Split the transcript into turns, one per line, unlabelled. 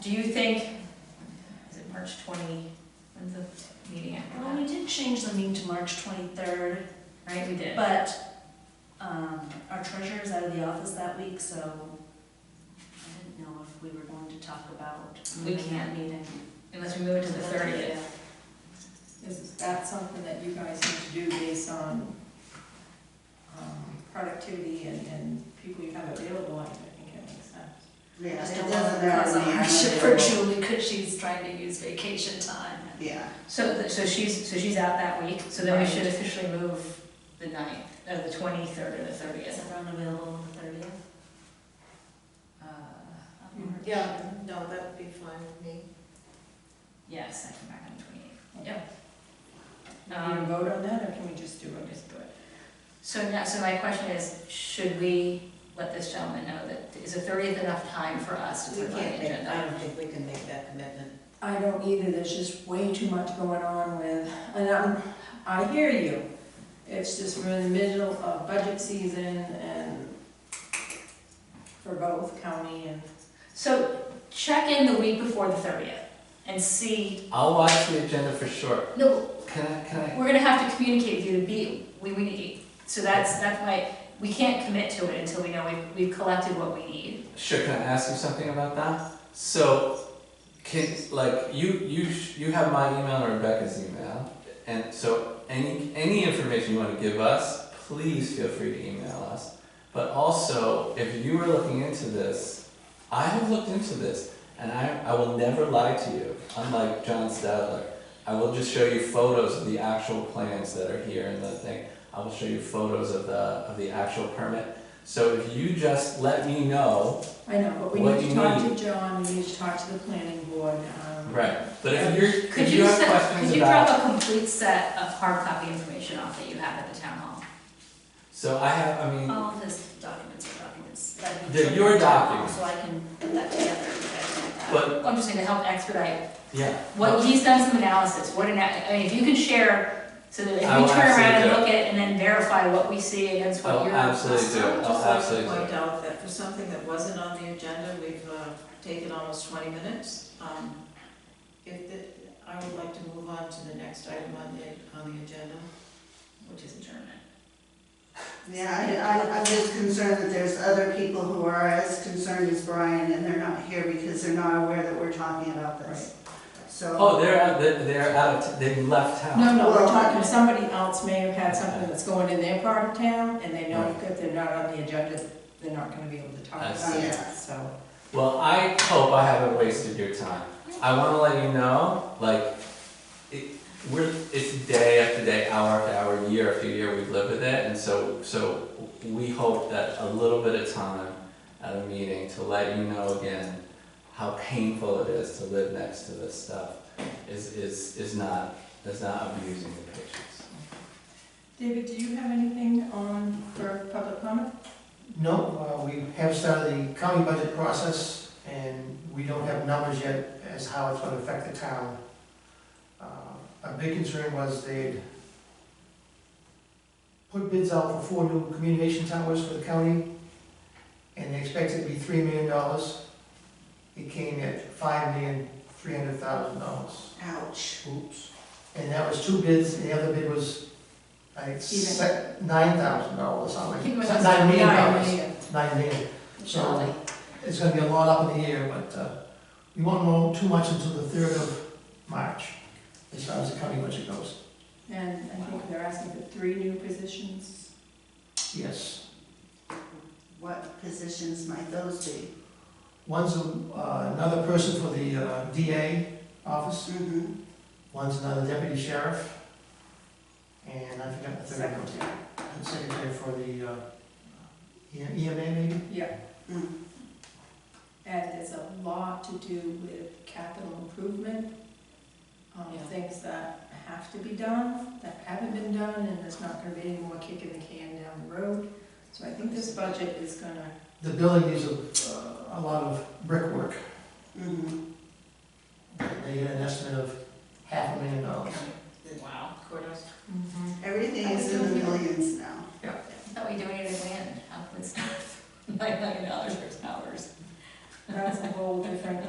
Do you think, is it March twenty, when's the meeting after
Well,
that?
we did change the meeting to March twenty-third,
Right, we did.
but, um, our treasurer is out of the office that week, so I didn't know if we were going to talk about
We
moving that
can't.
meeting.
Unless we move it to the thirtieth.
Is that something that you guys need to do based on um, productivity and, and people you have available? I think it makes sense.
Yeah,
Just
it
don't
doesn't
want to
matter
cause a
when you have
hardship for
available.
Julie, because she's trying to use vacation time.
Yeah,
So, th- so she's, so she's out that week, so then we should officially move the ninth, uh, the twenty-third or the
Is
thirtieth. Uh,
everyone available on the thirtieth?
Yeah, no, that would be fine with me.
Yes, I come back on the twenty-eighth.
Do you
Um,
vote on that, or can we just do it?
Just do it. So now, so my question is, should we let this gentleman know that, is the thirtieth enough time for us to
we
put it on the
can't make,
agenda?
I don't think we can make that commitment.
I don't either, there's just way too much going on with, and I'm, I hear you. It's just we're in the middle of budget season and for both county and.
So check in the week before the thirtieth and see,
I'll watch the agenda for sure.
no,
Can I, can I?
we're gonna have to communicate with you to be, we, we need, so that's, that's why, we can't commit to it until we know we've, we've collected what we need.
Sure, can I ask you something about that? So, can, like, you, you, sh- you have my email and Rebecca's email, and so any, any information you wanna give us, please feel free to email us. But also, if you are looking into this, I have looked into this, and I, I will never lie to you, unlike John Stadler. I will just show you photos of the actual plans that are here and the thing. I will show you photos of the, of the actual permit. So if you just let me know,
I know, but we
What
need to
do you
talk to John, we need to talk to the planning board. um,
right? But if you're,
Could
if
you
you have
send-
questions
Could you drop
about,
a complete set of hard copy information off that you have at the town hall?
so I have, I
Oh.
mean,
All of his documents are documents that he.
They're your documents.
So I can put that together and you guys can have that.
but
I'm just saying to help expedite
yeah. Oh,
What, he's done some analysis, what an, I mean, if you can share, so that if
I
we
will
turn around and
absolutely do
look at and then verify what we see against what
I'll
you're.
Oh, absolutely do,
I would
I'll
just like to
Oh, absolutely do.
point out that for something that wasn't on the agenda, we've uh, taken almost 20 minutes. Um, If, the- I would like to move on to the next item on the, on the agenda.
Which is adjournment.
Yeah, I, I, I'm just concerned that there's other people who are as concerned as Brian, and they're not here because they're not aware that we're talking about this. So,
Oh, they're, out- they're, they're out of, t- they've left town.
No, no, we're
Well-
talking, somebody else may have had something that's going in their part of town, and they know that they're not on the agenda, they're not gonna be able to talk
I
about it,
see.
so.
Well, I hope I haven't wasted your time. I wanna let you know, like, it, we're, it's day after day, hour after hour, year after year, we've lived with it, and so, so we hope that a little bit of time at a meeting to let you know again how painful it is to live next to this stuff is, is, is not, is not abusing the patients.
David, do you have anything on for public comment?
No, uh, we have started the county budget process, and we don't have numbers yet as how it's gonna affect the town. Uh, A big concern was they'd put bids out for four new communication towers for the county, and they expected it to be three million dollars. It came at five million, three hundred thousand dollars.
ouch.
Oops. And that was two bids, and the other bid was, I think,
Even.
se- nine thousand dollars, something.
I think it was
Nine million
Nine
dollars
million.
nine million.
Surely.
So it's gonna be a lot up in the air, but uh, we won't know too much until the third of March, as far as the county budget goes.
And I think they're asking for three new positions.
Yes.
What positions might those be?
One's uh, another person for the uh, DA office,
Mm-hmm.
one's another deputy sheriff, and I forgot the third one.
Secretary.
And Secretary for the uh, E- EMA maybe?
Mm-hmm.
And there's a lot to do with capital improvement, um,
Yeah.
things that have to be done, that haven't been done, and there's not gonna be any more kicking the can down the road. So I think this budget is gonna
The building needs a uh, a lot of brickwork.
Mm-hmm.